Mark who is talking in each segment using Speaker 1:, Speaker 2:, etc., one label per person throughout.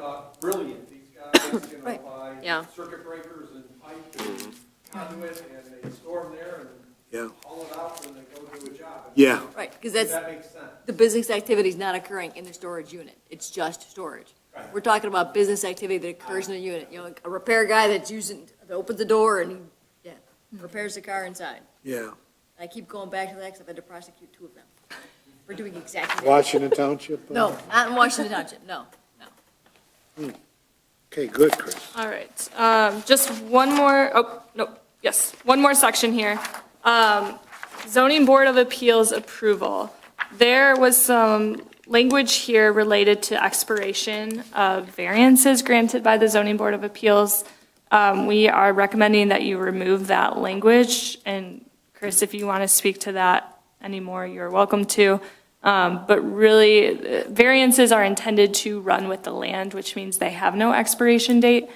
Speaker 1: Uh, brilliant. These guys, you know,
Speaker 2: Right.
Speaker 1: buy
Speaker 3: Yeah.
Speaker 1: circuit breakers and pipe and conduit, and they store them there
Speaker 4: Yeah.
Speaker 1: and haul it out when they go do a job.
Speaker 4: Yeah.
Speaker 2: Right, because
Speaker 1: Does
Speaker 2: that's,
Speaker 1: that make sense?
Speaker 2: the business activity is not occurring in the storage unit. It's just storage. We're talking about business activity that occurs in a unit, you know, like a repair guy that's using, that opens the door and, yeah, repairs the car inside.
Speaker 4: Yeah.
Speaker 2: I keep going back to that because I've had to prosecute two of them. We're doing exactly that.
Speaker 5: Washington Township? uh,
Speaker 2: No, not in Washington Township, no.
Speaker 5: Okay, good, Chris.
Speaker 3: All right, um, just one more, oh, no, yes, one more section here. Um, zoning board of appeals approval. There was some language here related to expiration of variances granted by the zoning board of appeals. Um, we are recommending that you remove that language, and Chris, if you want to speak to that anymore, you're welcome to. Um, But really, uh, variances are intended to run with the land, which means they have no expiration date.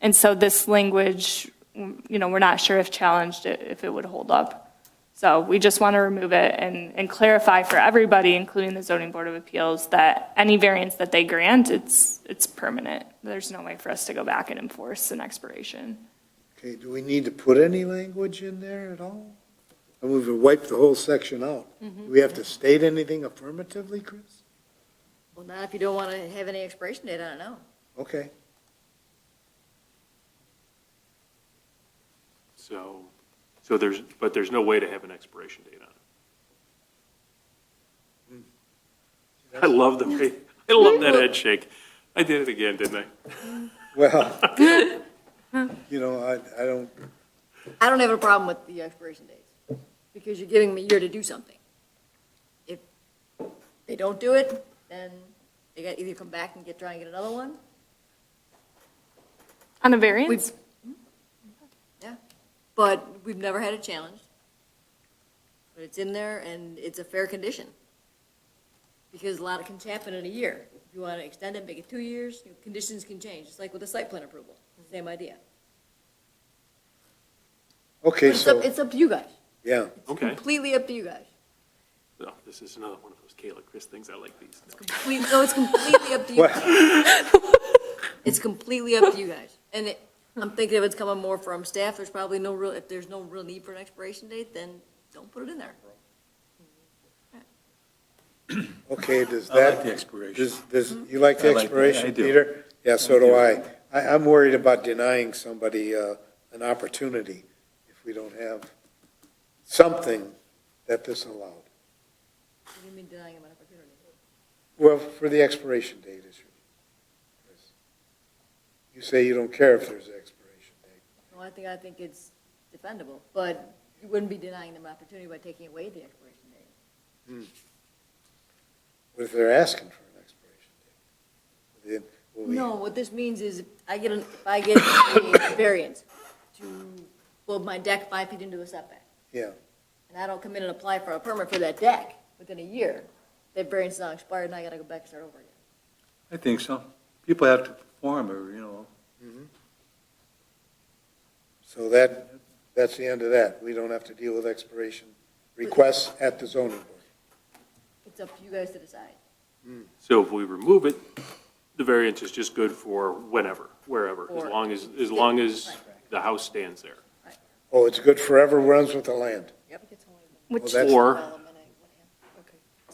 Speaker 3: And so this language, mm, you know, we're not sure if challenged, i- if it would hold up. So we just want to remove it and, and clarify for everybody, including the zoning board of appeals, that any variance that they grant, it's, it's permanent. There's no way for us to go back and enforce an expiration.
Speaker 5: Okay, do we need to put any language in there at all? I mean, we wiped the whole section out.
Speaker 2: Mm-hmm.
Speaker 5: Do we have to state anything affirmatively, Chris?
Speaker 2: Well, not if you don't want to have any expiration date, I don't know.
Speaker 5: Okay,
Speaker 6: So, so there's, but there's no way to have an expiration date on
Speaker 2: Hmm.
Speaker 6: it. I love the way, I love that head shake. I did it again, didn't I?
Speaker 5: well, you know, I, I don't,
Speaker 2: I don't have a problem with the expiration dates, because you're giving them a year to do something. If they don't do it, then they got, either come back and get, try and get another one.
Speaker 3: On a variance?
Speaker 2: Yeah, but we've never had it challenged. But it's in there and it's a fair condition. Because a lot can happen in a year. If you want to extend it, make it two years, you know, conditions can change. It's like with the site plan approval, same idea.
Speaker 5: okay,
Speaker 2: But It's up,
Speaker 5: so,
Speaker 2: it's up to you guys.
Speaker 5: yeah,
Speaker 6: Okay.
Speaker 2: Completely up to you guys.
Speaker 6: No, this is another one of those Kayla, Chris things. I like these.
Speaker 2: Complete, no, it's completely up to you.
Speaker 5: well,
Speaker 2: It's completely up to you guys. And it, I'm thinking if it's coming more from staff, there's probably no real, if there's no real need for an expiration date, then don't put it in there.
Speaker 5: okay, does
Speaker 7: I
Speaker 5: that?
Speaker 7: like the expiration.
Speaker 5: Does, does, you like the
Speaker 7: I like- I
Speaker 5: expiration,
Speaker 7: do.
Speaker 5: Peter? Yeah, so do
Speaker 7: I
Speaker 5: I. I, I'm worried about denying somebody, uh, an opportunity if we don't have something that this allowed.
Speaker 2: What do you mean denying them an opportunity?
Speaker 5: Well, for the expiration date issue. Chris. You say you don't care if there's an expiration date.
Speaker 2: Well, I think, I think it's defendable, but you wouldn't be denying them an opportunity by taking away the expiration date.
Speaker 5: What if they're asking for an expiration date? Then will we-
Speaker 2: No, what this means is if I get, an- if I get a variance to build my deck five feet into a setback.
Speaker 5: Yeah.
Speaker 2: And I don't come in and apply for a permit for that deck within a year, that variance is now expired and I gotta go back and start over again.
Speaker 7: I think so. People have to perform, or, you know,
Speaker 5: So that, that's the end of that. We don't have to deal with expiration requests at the zoning board.
Speaker 2: It's up to you guys to decide.
Speaker 6: So if we remove it, the variance is just good for whenever, wherever, as
Speaker 2: Or-
Speaker 6: long as, as long as the house stands there.
Speaker 5: Oh, it's good forever, runs with the land.
Speaker 2: Yep.
Speaker 5: Well,
Speaker 3: Which,
Speaker 5: that's-
Speaker 6: Or,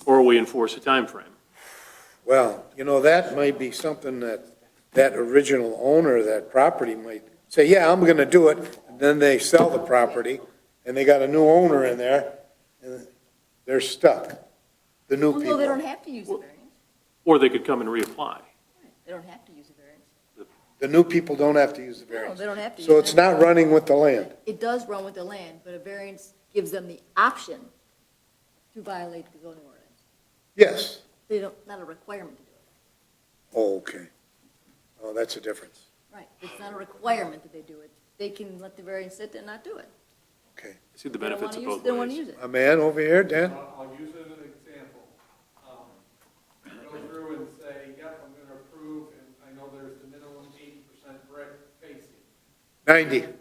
Speaker 6: or we enforce a time frame.
Speaker 5: Well, you know, that might be something that, that original owner of that property might say, yeah, I'm gonna do it, and then they sell the property, and they got a new owner in there, and they're stuck, the new
Speaker 2: Well, no, they don't
Speaker 5: people,
Speaker 2: have to use the variance.
Speaker 6: Or they could come and reapply.
Speaker 2: They don't have to use the variance.
Speaker 5: the new people don't have to use the
Speaker 2: No,
Speaker 5: variance.
Speaker 2: they don't have to.
Speaker 5: So
Speaker 2: use
Speaker 5: it's
Speaker 2: it.
Speaker 5: not running with the land,
Speaker 2: It does run with the land, but a variance gives them the option to violate the zoning ordinance.
Speaker 5: yes,
Speaker 2: They don't, not a requirement to do it.
Speaker 5: oh, okay, oh, that's a difference,
Speaker 2: Right. It's not a requirement that they do it. They can let the variance sit and not do it.
Speaker 5: okay.
Speaker 6: I See the
Speaker 2: They don't
Speaker 6: benefits
Speaker 2: want to
Speaker 6: of
Speaker 2: use
Speaker 6: both
Speaker 2: it. They don't want to
Speaker 6: ways.
Speaker 2: use it.
Speaker 5: A man over here, Dan,
Speaker 1: I'll I'll use it as an example. Um, Go through and say, yep, I'm gonna approve, and I know there's the minimum eighty percent brick facing.
Speaker 5: ninety,